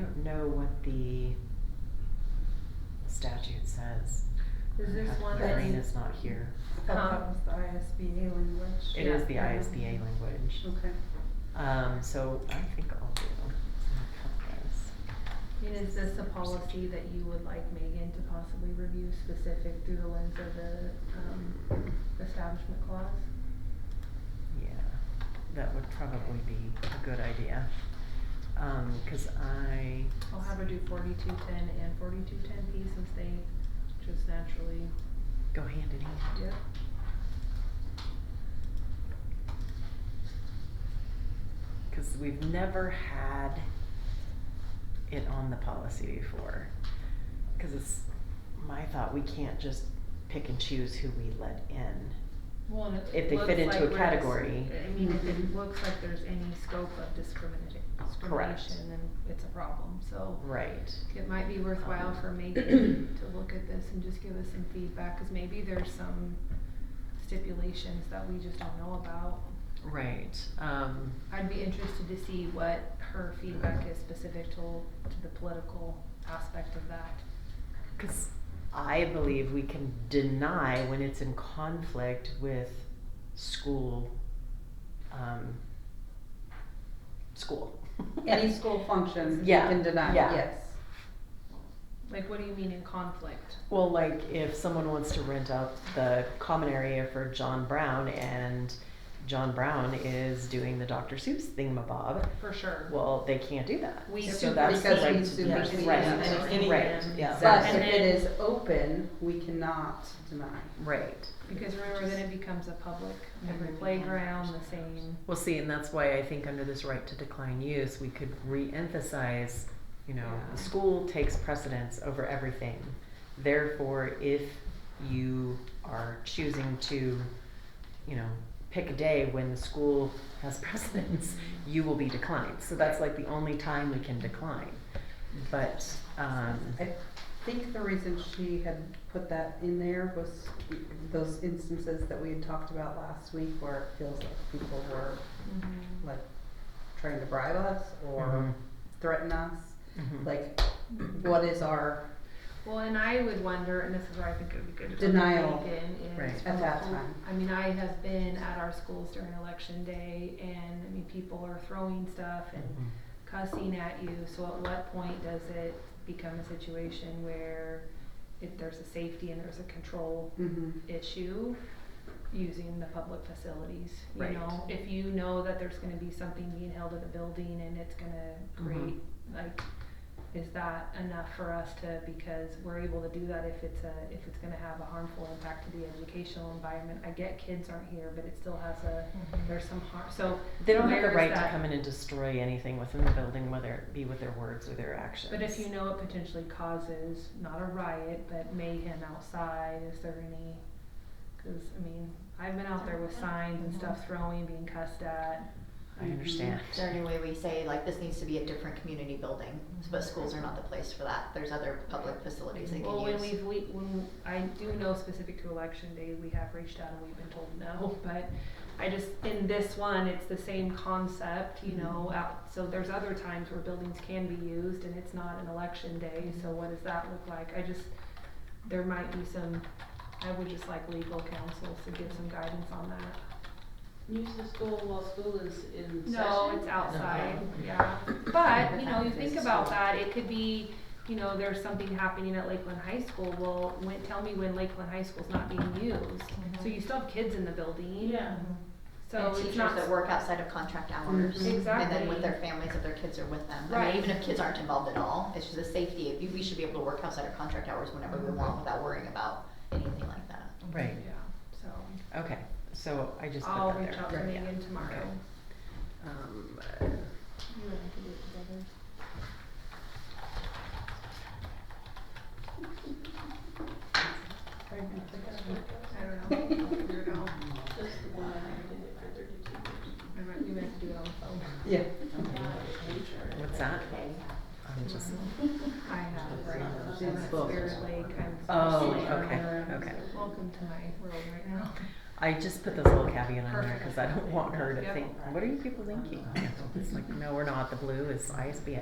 don't know what the statute says. Is this one My brain that's is not here. Um, Sometimes the ISBA language. It is Yeah. the ISBA language. Okay. Um, so I think I'll do some And is this a policy that you would like Megan to possibly review specific through the lens of the, um, establishment clause? Yeah, that would probably be a good idea. Um, cause I, I'll have her do forty-two ten and forty-two ten P since they just naturally, go hand in hand. yep. Cause we've never had it on the policy before. Cause it's my thought, we can't just pick and choose who we let in. Well, and If it they looks fit into like a we're dis- category. I mean, if Mhm. it looks like there's any scope of discriminati- discrimination, then it's a problem, so. Right. It might be worthwhile Um, for Megan to look at this and just give us some feedback, cause maybe there's some stipulations that we just don't know about. Right, um, I'd be interested to see what her feedback is specific to, to the political aspect of that. cause I believe we can deny when it's in conflict with school, um, school. Any school functions, you Yeah, can deny, yeah. yes. Like, what do you mean in conflict? Well, like if someone wants to rent out the common area for John Brown and John Brown is doing the Dr. Seuss thingamabob, For sure. well, they can't do that. We So super- that's the because right we to do super- it. we- Right, and it's any right, man. yeah. But And if it then- is open, we cannot deny. Right. Because remember, then it becomes a public, every playground, the same. Well, see, and that's why I think under this right to decline use, we could re-emphasize, you know, Yeah. the school takes precedence over everything. Therefore, if you are choosing to, you know, pick a day when the school has precedence, you will be declined. So that's like the only time we can decline. But, um, I think the reason she had put that in there was those instances that we had talked about last week where it feels like people were Mm-hmm. like trying to bribe us Mhm. or threaten us. Mhm. Mm-hmm. Like, what is our, Well, and I would wonder, and this is where I think it would be good to. talk to Denial. Megan, is Right. from At a that pol- time. I mean, I have been at our schools during election day and, I mean, people are throwing stuff and Mhm. cussing at you, so at what point does it become a situation where if there's a safety and there's a control mhm, issue using the public facilities, you Right. know? If you know that there's gonna be something being held at the building and it's gonna Mm-hmm. create, like, is that enough for us to, because we're able to do that if it's a, if it's gonna have a harmful impact to the educational environment? I get kids aren't here, but it still has a, there's some harm, so. They don't have where the is right to that? come in and destroy anything within the building, whether it be with their words or their actions. But if you know it potentially causes, not a riot, but mayhem outside, is there any, cause I mean, I've been out there with signs and stuff throwing, being cussed at. I Mm-hmm. understand. Is there any way we say, like, this needs to be a different community building, Mm-hmm. but schools are not the place for that, there's other public facilities they Well, can when use. we've, we, when, I do know specific to election day, we have reached out and we've been told no, but I just, in this one, it's the same concept, Mm-hmm. you know, out, so there's other times where buildings can be used and it's not an election day, Mm-hmm. so what does that look like? I just, there might be some, I would just like legal counsel to give some guidance on that. Use the school while school is in session? No, it's outside, yeah. But, you know, you think about that, it could be, you know, there's something happening at Lakeland High School, well, when, tell me when Lakeland High School's not being used. So you still have kids in the building, Yeah. so And it's teachers not, Mm-hmm. that work outside of contract hours, and then Exactly. with their families, if their kids are with them. I Right. mean, even if kids aren't involved at all, it's just a safety, if you- we should be able to work outside of contract hours whenever we want without worrying about anything like that. yeah, Right, so, okay, so I just put I'll that reach there. out to Right. Megan tomorrow. Okay. Um, uh, You and I can do it together. I don't know, I'll figure it out, That's the one I never did it for thirty-two I might, we might have to do it on the phone. yeah. years. What's that? I'm just, Mm-hmm. I have, right, It's I'm at both. Spirit Lake, I'm. oh, Spirit Lake. okay, okay. Welcome to my world right now. I just put this little caveat on there Perfect. because I don't want her to Yep. think, what are you people thinking? It's like, no, we're not, the blue is ISBA.